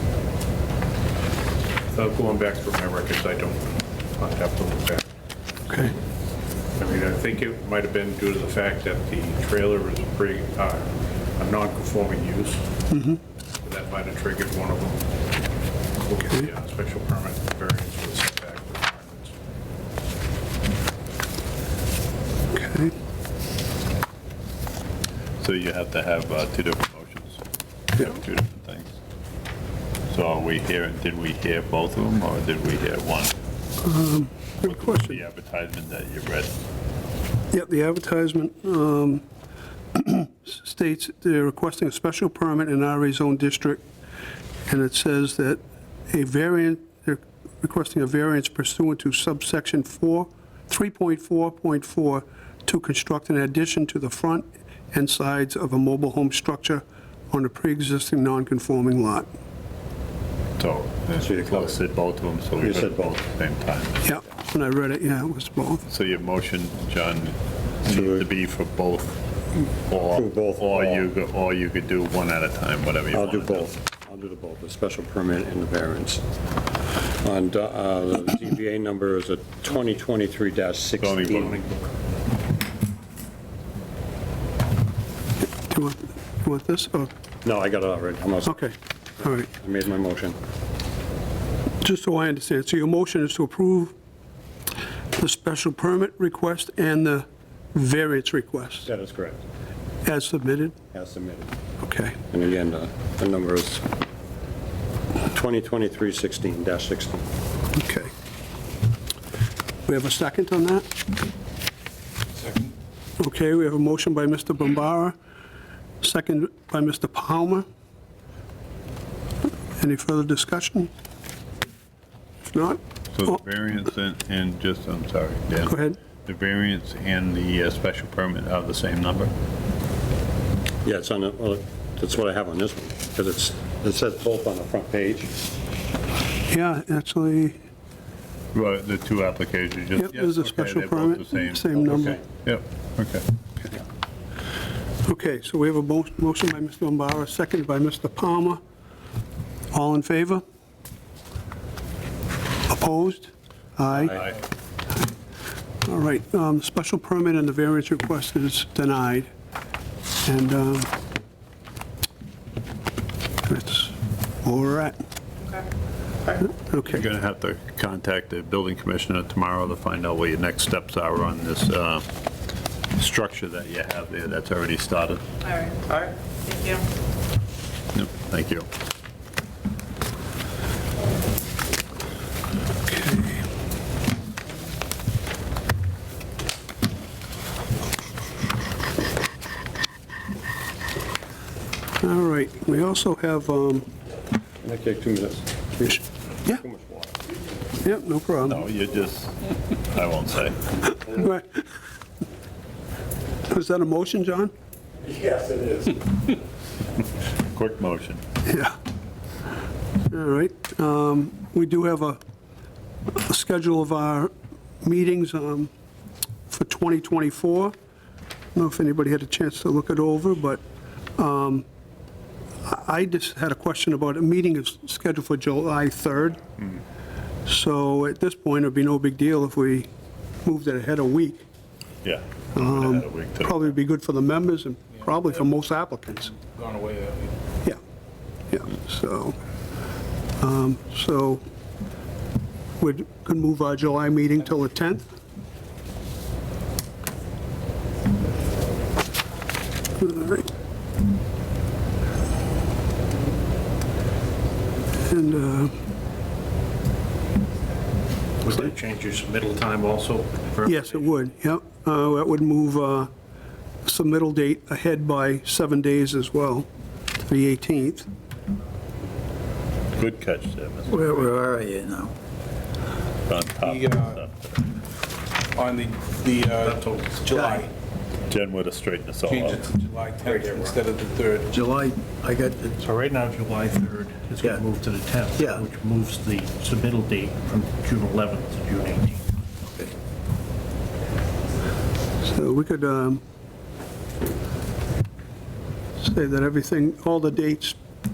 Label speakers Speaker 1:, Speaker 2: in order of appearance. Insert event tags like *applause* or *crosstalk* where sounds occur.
Speaker 1: Without going back through my records, I don't, I'd have to look back.
Speaker 2: Okay.
Speaker 1: I mean, I think it might have been due to the fact that the trailer is a pretty, uh, a non-conforming use.
Speaker 2: Mm-hmm.
Speaker 1: That might have triggered one of them. Look at the uh, special permit variance with setback requirements.
Speaker 2: Okay.
Speaker 3: So you have to have uh, two different motions,
Speaker 2: Yeah.
Speaker 3: two different things. So are we here, did we hear both of them, or did we hear one?
Speaker 2: Good question.
Speaker 3: The advertisement that you read,
Speaker 2: Yep, the advertisement um, *clears throat* states they're requesting a special permit in RA zone district, and it says that a variant, they're requesting a variance pursuant to subsection 4, 3.4.4, to construct an addition to the front and sides of a mobile home structure on a pre-existing non-conforming lot.
Speaker 3: so. I said both of them, so we
Speaker 4: You
Speaker 3: heard
Speaker 4: said
Speaker 3: both at the same time.
Speaker 2: Yep, when I read it, yeah, it was both.
Speaker 3: So your motion, John, needs
Speaker 4: To-
Speaker 3: to be for both, or,
Speaker 4: For both,
Speaker 3: or
Speaker 4: or-
Speaker 3: you, go- or you could do one at a time, whatever you
Speaker 4: I'll
Speaker 3: want.
Speaker 4: do both. I'll do the both, the special permit and the variance. On uh, the ZBA number is a 2023-16.
Speaker 3: Zoning book.
Speaker 2: Do you want, you want this? Oh,
Speaker 4: No, I got it already. I'm all set.
Speaker 2: okay, all right.
Speaker 4: I made my motion.
Speaker 2: Just so I understand, so your motion is to approve the special permit request and the variance request
Speaker 4: That is correct.
Speaker 2: as submitted?
Speaker 4: As submitted.
Speaker 2: Okay,
Speaker 4: And again, uh, the number is 2023-16-16.
Speaker 2: okay. We have a second on that? Second. Okay, we have a motion by Mr. Bombara, second by Mr. Palmer. Any further discussion? If not,
Speaker 3: So the variance and, and just, I'm sorry, Dan.
Speaker 2: Go ahead.
Speaker 3: The variance and the uh, special permit are the same number?
Speaker 4: Yeah, it's on, the- well, that's what I have on this one, because it's, it says both on the front page.
Speaker 2: yeah, actually,
Speaker 3: Well, the two applications, just.
Speaker 2: yep, there's a
Speaker 3: yes, okay,
Speaker 2: special
Speaker 3: they're
Speaker 2: permit,
Speaker 3: both the
Speaker 2: same number.
Speaker 4: Okay.
Speaker 3: Yep, okay.
Speaker 2: Okay, so we have a mo- motion by Mr. Bombara, seconded by Mr. Palmer. All in favor? Opposed? Aye.
Speaker 3: Aye.
Speaker 2: All right, um, special permit and the variance request is denied. And um, that's all we're at.
Speaker 3: You're
Speaker 2: Okay,
Speaker 3: gonna have to contact the building commissioner tomorrow to find out what your next steps are on this, uh, structure that you have there that's already started.
Speaker 5: All right. All right. Thank you.
Speaker 3: Yep, Thank you.
Speaker 2: all right, we also have, um,
Speaker 4: I take two minutes.
Speaker 2: yeah,
Speaker 4: Too much water.
Speaker 2: yeah, no problem.
Speaker 3: No, Oh, you just, I won't say.
Speaker 2: Right. Was that a motion, John?
Speaker 3: Quick motion.
Speaker 2: Yeah. All right. um, We do have a a schedule of our meetings um, for 2024. I don't know if anybody had a chance to look it over, but um, I I just had a question about, a meeting is scheduled for July 3rd. So at this point, it'd be no big deal if we moved it ahead a week.
Speaker 3: Yeah. We
Speaker 2: Um,
Speaker 3: would've had a week to-
Speaker 2: Probably be good for the members and probably for most applicants.
Speaker 1: Gone away that way.
Speaker 6: uh,
Speaker 2: Yeah, yeah, so, um, so we could move our July meeting till the 10th? All right. And, uh,
Speaker 1: Would that change your submittal time also?
Speaker 2: yes, it would, yep, Uh, that would move uh, submittal date ahead by seven days as well, to the 18th.
Speaker 3: Good catch there, Mr.
Speaker 7: Where, where are you now?
Speaker 3: On top of
Speaker 6: You, uh,
Speaker 3: stuff.
Speaker 6: on the, the, uh, July,
Speaker 3: Jen would have straightened us all out.
Speaker 6: change it to July 10th instead of the 3rd.
Speaker 7: July, I got,
Speaker 8: So right now, July 3rd is going to
Speaker 7: Yeah.
Speaker 8: move to the 10th.
Speaker 7: Yeah.
Speaker 8: Which moves the submittal date from June 11th to June 18th.
Speaker 2: So we could um, say that everything, all the dates